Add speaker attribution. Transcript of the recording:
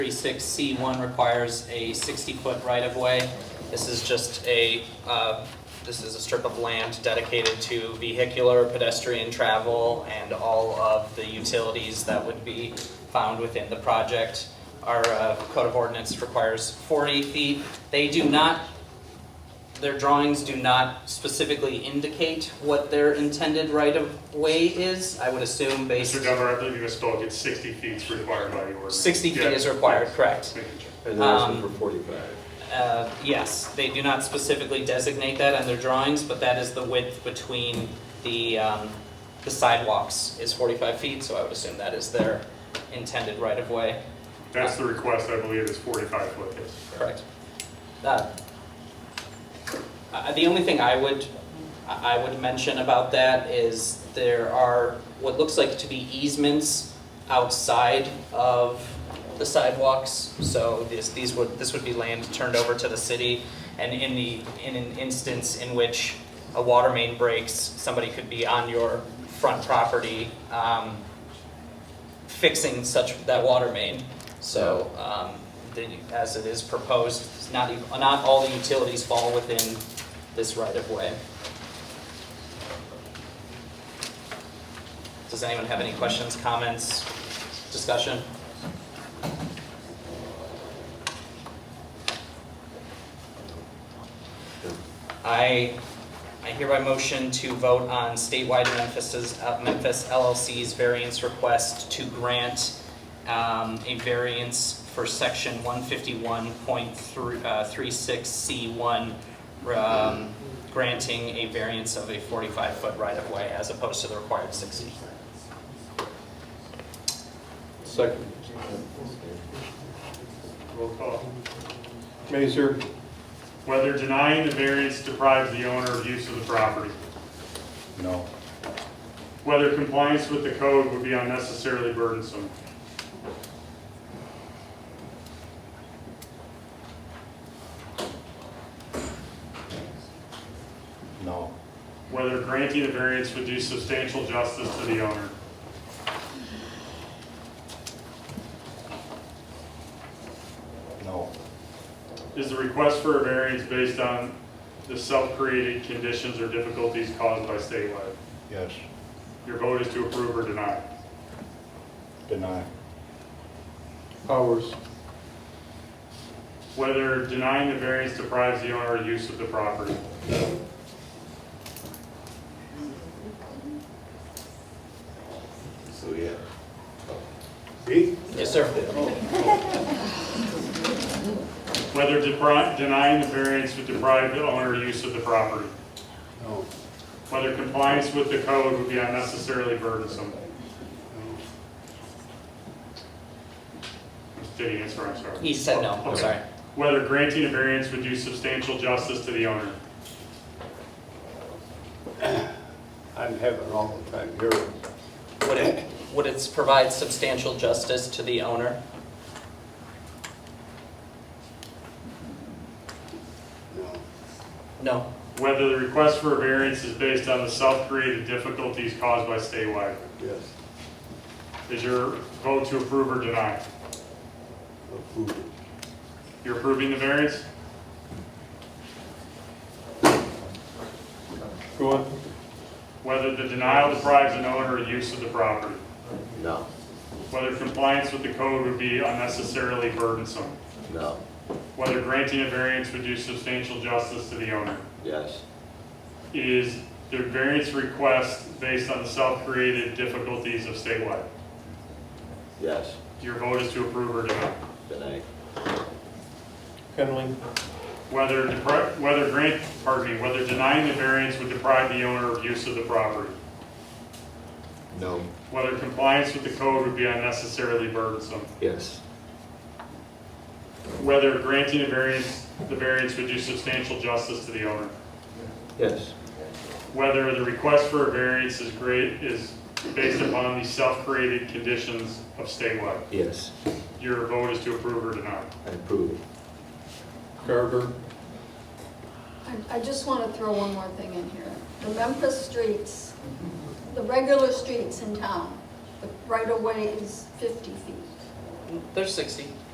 Speaker 1: 36C1 requires a 60-foot right-of-way. This is just a, uh, this is a strip of land dedicated to vehicular, pedestrian travel, and all of the utilities that would be found within the project. Our uh, code of ordinance requires 40 feet. They do not their drawings do not specifically indicate what their intended right-of-way is. I would assume based,
Speaker 2: Mr. Dunbar, I believe you misspoke, it's 60 feet is required by the ordinance.
Speaker 1: 60 feet
Speaker 2: Yeah.
Speaker 1: is required, correct.
Speaker 2: Making sure.
Speaker 3: And they're asking for
Speaker 1: Um,
Speaker 3: 45.
Speaker 1: Uh, Yes, they do not specifically designate that on their drawings, but that is the width between the um, the sidewalks is 45 feet, so I would assume that is their intended right-of-way.
Speaker 2: That's the request, I believe, is 45 foot.
Speaker 1: Correct. Uh, uh, The only thing I would, I I would mention about that is there are what looks like to be easements outside of the sidewalks. So this, these would, this would be land turned over to the city. And in the, in an instance in which a water main breaks, somebody could be on your front property um, fixing such, that water main. So, um, the, as it is proposed, it's not, ev- not all the utilities fall within this right-of-way. Does anyone have any questions, comments, discussion? I, I hereby motion to vote on statewide Memphis's, uh, Memphis LLC's variance request to grant um, a variance for section uh, 151.36C1, um, granting a variance of a 45-foot right-of-way as opposed to the required 60.
Speaker 3: Second.
Speaker 2: Roll call.
Speaker 3: Mazer,
Speaker 2: Whether denying the variance deprives the owner of use of the property.
Speaker 4: No.
Speaker 2: Whether compliance with the code would be unnecessarily burdensome.
Speaker 4: No.
Speaker 2: Whether granting the variance would do substantial justice to the owner.
Speaker 4: No.
Speaker 2: Is the request for a variance based on the self-created conditions or difficulties caused by statewide?
Speaker 4: Yes.
Speaker 2: Your vote is to approve or deny.
Speaker 4: Deny.
Speaker 3: Powers,
Speaker 2: Whether denying the variance deprives the owner of use of the property.
Speaker 3: so yeah.
Speaker 1: Yes, sir.
Speaker 2: Whether depri- denying the variance would deprive the owner of use of the property.
Speaker 3: No.
Speaker 2: Whether compliance with the code would be unnecessarily burdensome. Did he answer? I'm sorry.
Speaker 1: He said no, I'm
Speaker 2: Okay.
Speaker 1: sorry.
Speaker 2: Whether granting a variance would do substantial justice to the owner.
Speaker 5: I'm having an awful time hearing.
Speaker 1: Would it, would it provide substantial justice to the owner?
Speaker 5: No,
Speaker 1: No.
Speaker 2: Whether the request for a variance is based on the self-created difficulties caused by statewide.
Speaker 5: yes,
Speaker 2: Is your vote to approve or deny?
Speaker 5: approve it.
Speaker 2: You're approving the variance?
Speaker 3: Go on.
Speaker 2: Whether the denial deprives an owner of use of the property.
Speaker 5: No,
Speaker 2: Whether compliance with the code would be unnecessarily burdensome.
Speaker 5: no,
Speaker 2: Whether granting a variance would do substantial justice to the owner.
Speaker 5: yes,
Speaker 2: Is the variance request based on the self-created difficulties of statewide?
Speaker 5: yes,
Speaker 2: Your vote is to approve or deny.
Speaker 5: deny,
Speaker 3: Henling,
Speaker 2: Whether depri- whether grant, pardon me, whether denying the variance would deprive the owner of use of the property.
Speaker 5: no,
Speaker 2: Whether compliance with the code would be unnecessarily burdensome.
Speaker 5: yes,
Speaker 2: Whether granting a variance, the variance would do substantial justice to the owner.
Speaker 5: yes,
Speaker 2: Whether the request for a variance is great, is based upon the self-created conditions of statewide.
Speaker 5: yes,
Speaker 2: Your vote is to approve or deny.
Speaker 5: I approve it.
Speaker 3: Garber,
Speaker 6: I I just want to throw one more thing in here. The Memphis streets, the regular streets in town, the right-of-way is 50 feet.
Speaker 1: There's 60.